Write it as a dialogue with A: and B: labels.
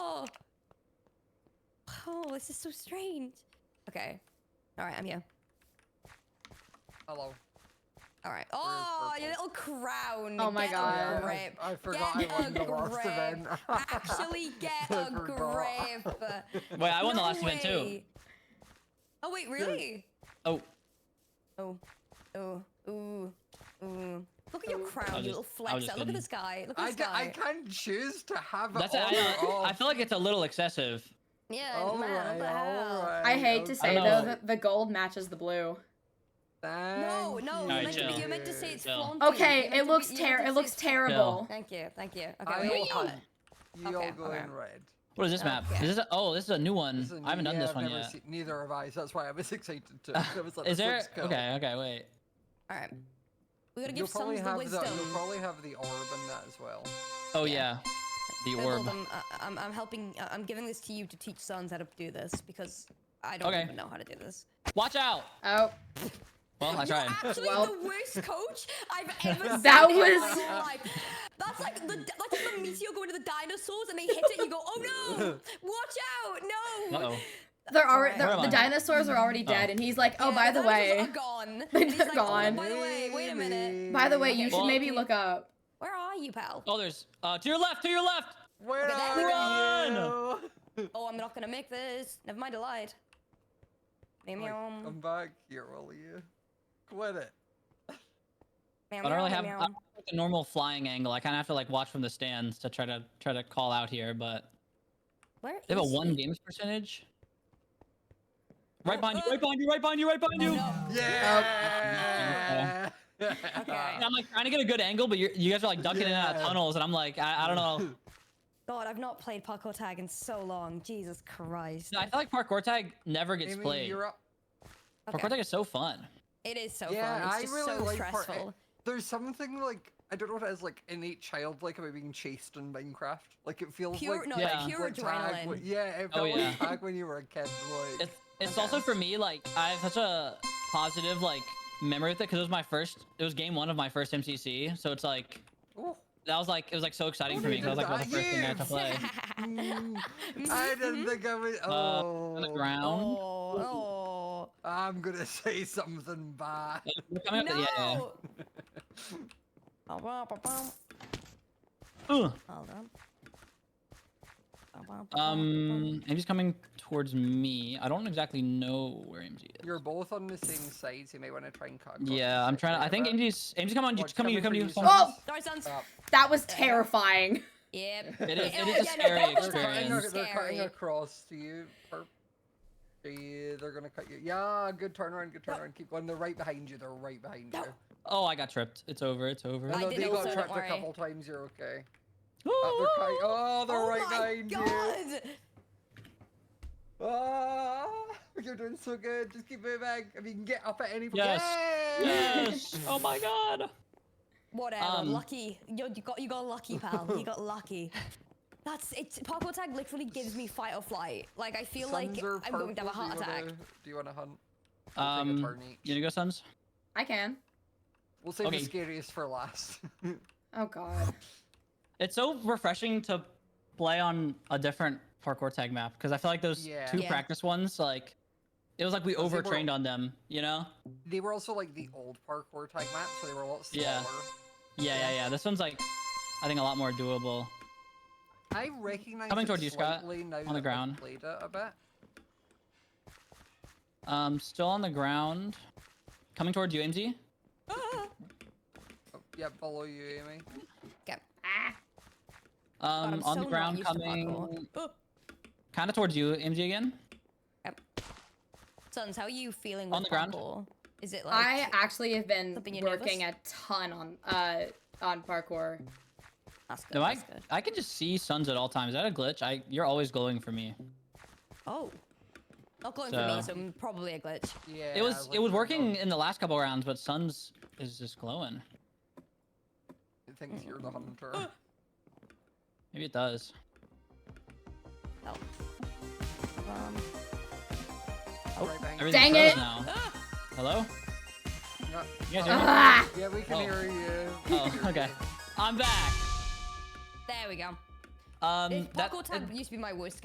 A: hell? Oh. This is so strange. Okay. All right, I'm here.
B: Hello.
A: All right. Oh,
B: purple?
A: your little crown.
C: Oh my
A: Get a
C: God.
B: Yeah,
A: grip.
B: I, I forgot
A: Get
B: I won
A: a
B: the last
A: grip.
B: event.
A: Actually, get
B: I
A: a
B: forgot.
A: grip.
D: Wait, I won
A: No
D: the last event too.
A: way. Oh wait, really?
D: Oh,
A: Oh, oh, ooh, ooh. Look at your
D: I
A: crown,
D: was
A: you
D: just-
A: little
D: I
A: flex.
D: was
A: Look
D: just
A: at
D: kidding.
A: this guy. Look at
B: I,
A: this
B: ca- I
A: guy.
B: can choose to have
D: that's
B: it
D: it.
B: on
D: I,
B: or
D: know, I
B: off.
D: feel like it's a little excessive.
A: Yeah,
B: All
A: man, what the
B: right,
A: hell?
B: all right,
C: I hate to
B: okay.
C: say
D: I know.
C: though that the gold matches the blue.
A: No,
B: Thank
A: no,
D: No,
A: you meant, to be,
D: chill.
A: you meant to say it's
D: Chill.
A: flaunty. You
C: Okay,
A: meant to
C: it
A: be-
C: looks
A: you meant
C: ter-
A: to
C: it
A: say
C: looks
A: it's-
C: terrible.
A: Thank you, thank you.
B: I
A: Okay, wait, we
B: will-
A: got it.
B: Y'all
A: Okay,
B: go
A: okay.
B: in red.
D: What is this map?
A: Okay.
D: Is this a, oh, this is a new one.
B: This is a
D: I haven't
B: new-
D: done
B: yeah,
D: this
B: I've
D: one
B: never
D: yet.
B: seen- neither have I, so that's why I was excited too. I was like,
D: is
B: "This
D: there?
B: looks cool."
D: Okay, okay, wait.
A: All right. We gotta
B: You'll
A: give
B: probably
A: sons the
B: have
A: wisdom.
B: the. You'll probably have the orb in that as well.
D: Oh
A: Yeah.
D: yeah, the
A: I told
D: orb.
A: them, uh, I'm, I'm helping. Uh, I'm giving this to you to teach sons how to do this because I don't
D: Okay.
A: even know how to do this.
D: Watch out!
C: Oh,
D: Well, I tried.
A: You're actually
C: Well-
A: the worst coach I've ever seen.
C: That
A: in my
C: was-
A: whole life. That's like the that's like the meteor going to the dinosaurs and they hit it. You go, oh no! Watch out! No!
D: Uh oh.
C: they're
A: all
C: already
A: right.
C: they're,
D: Where
C: the
D: am I?
C: dinosaurs are already dead, and he's like, oh,
A: Yeah,
C: by the
A: dinosaurs
C: way,
A: are gone.
C: They're
A: And he's like,
C: gone.
A: Oh, by the way, wait a minute.
C: by the way, you
A: Okay.
C: should
D: Well-
C: maybe look up.
A: Where are you, pal?
D: Oh, there's uh to your left, to your left.
B: Where
A: Okay, there we
B: are you?
A: Oh, I'm not gonna make this. Never mind, I lied. Meow
B: Like, um,
A: meow.
B: I'm back here, will you? Quit it.
A: Meow
D: I don't
A: meow
D: really have, I
A: meow.
D: don't have like a normal flying angle. I kind of have to like watch from the stands to try to try to call out here, but
A: Where
D: they have a
A: is
D: one
A: he?
D: games percentage. Right
A: Oh,
D: behind you!
A: uh,
D: Right behind you! Right behind you! Right behind you!
A: Oh, No.
B: Yeah.
D: And I'm like trying to get a good angle, but you're, you guys are like ducking in and out of
B: Yeah.
D: tunnels, and I'm like, I, I don't know.
A: God, I've not played parkour tag in so long. Jesus Christ.
D: No, I feel like parkour tag never gets
B: Amy,
D: played.
B: you're up.
A: Okay.
D: Parkour tag is so fun.
A: It is so
B: Yeah,
A: fun. It's
B: I
A: just
B: really
A: so
B: like parkour.
A: stressful.
B: There's something like I don't know what it is, like innate childlike about being chased in Minecraft. Like it feels
A: Pure-
B: like
A: no,
D: like
B: tag-
A: pure
B: like tag when-
A: adrenaline.
B: yeah, it
D: Oh,
B: felt
D: yeah.
B: like tag when you were a kid. Like
D: It's it's
A: Okay.
D: also for me like I have such a positive like memory with it because it was my first. It was game one of my first MCC, so it's like
B: oh,
D: that was like it was like so exciting
B: Oh,
D: for me
B: you
D: because
B: did
D: like that was
B: that,
D: the first thing I had to play.
B: mm,
A: Mm-hmm.
B: I didn't think I would.
D: Uh, on the
B: Oh,
D: ground.
A: oh, oh.
B: I'm gonna say something bad.
A: No.
D: We're coming up- yeah, yeah, yeah.
A: Ba- ba- ba- bum.
D: Ugh.
A: Hold on. Ba- ba- ba- bum.
D: Um, Amy's coming towards me. I don't exactly know where MG is.
B: You're both on the same side, so you may want to try and cut.
D: yeah, I'm trying to. I think MG's MG's coming on you.
B: Watch,
D: Coming you.
B: coming
D: Coming
B: for
D: you.
B: you,
D: someone-
C: Oh,
A: Sorry, sons.
C: that was terrifying.
A: Yep. Oh,
D: It is-
A: Yeah,
D: it is a
A: yeah, no,
D: scary
A: parkour tag
B: They're cutting,
A: is
B: ac- they're cutting
A: scary.
B: across to you. Perp. They- They're gonna cut you. Yeah, good turnaround, good turnaround. Keep going. They're right behind you. They're right behind
A: No.
B: you.
D: Oh, I got tripped. It's over. It's over.
A: I
B: Although
A: did
B: they
A: also,
B: got
A: don't
B: trapped a
A: worry.
B: couple times. You're okay. Uh,
D: Ooh.
B: they're cutting. Oh, they're
A: Oh
B: right
A: my
B: behind you.
A: god!
B: Ah, you're doing so good. Just keep moving. If you can get up at any point.
D: Yes.
B: Yay!
D: Yes. Oh my god.
A: Whatever.
D: Um,
A: lucky. You, you got you got lucky, pal. you got lucky. That's it. Parkour tag literally gives me fight or flight. Like I feel like
B: Suns are
A: I'm going to have a
B: purple.
A: heart
B: Do you
A: attack.
B: wanna- Do you want to hunt? We'll take a
D: Um,
B: turn each.
D: you gonna go, sons?
C: I can.
B: We'll save
D: okay.
B: the scariest for last.
C: Oh god.
D: It's so refreshing to play on a different parkour tag map because I feel like those
B: Yeah.
D: two
A: Yeah.
D: practice ones, like, it was like we
B: Those they were-
D: overtrained on them, you know?
B: they were also like the old parkour tag maps, so they were a lot smaller.
D: Yeah. Yeah, yeah, yeah. This one's like, I think a lot more doable.
B: I recognize
D: Coming
B: it
D: toward you, Scott,
B: slightly now
D: on
B: that
D: the
B: I've
D: ground.
B: Played it a bit.
D: Um, still on the ground, coming towards you, MG.
A: Ah.
B: Oh, yeah, below you, Amy.
C: Ah.
A: God,
D: Um,
A: I'm
D: on
A: so
D: the
A: not
D: ground,
A: used to
D: coming
A: parkour. Oh,
D: kind of towards you, MG again.
A: Sons, how are you feeling with
D: On the ground.
A: parkour? Is it like
C: I actually have been
A: Something you're
C: working a ton on uh on parkour.
A: that's good,
D: No, I
A: that's good.
D: I can just see suns at all times. Is that a glitch? I you're always glowing for me.
A: Oh. Not going for me,
D: So-
A: so probably a glitch.
B: Yeah.
D: it was
B: like
D: it was
B: the
D: working
B: hum-
D: in the last couple rounds, but suns is just glowing.
B: It thinks you're the hunter.
D: Oh, Maybe it does.
A: Oh. Um,
D: Oh,
B: Right behind you.
C: Dang
D: everything's frozen now.
A: ah! Hello?
D: Hello?
B: Yeah, Uh,
D: You guys hear me?
C: Ah!
B: yeah, we can
D: Oh.
B: hear you.
D: Oh, okay. I'm back.
A: There we go.
D: Um,
A: If
D: that- Um,
A: parkour tag used to be my worst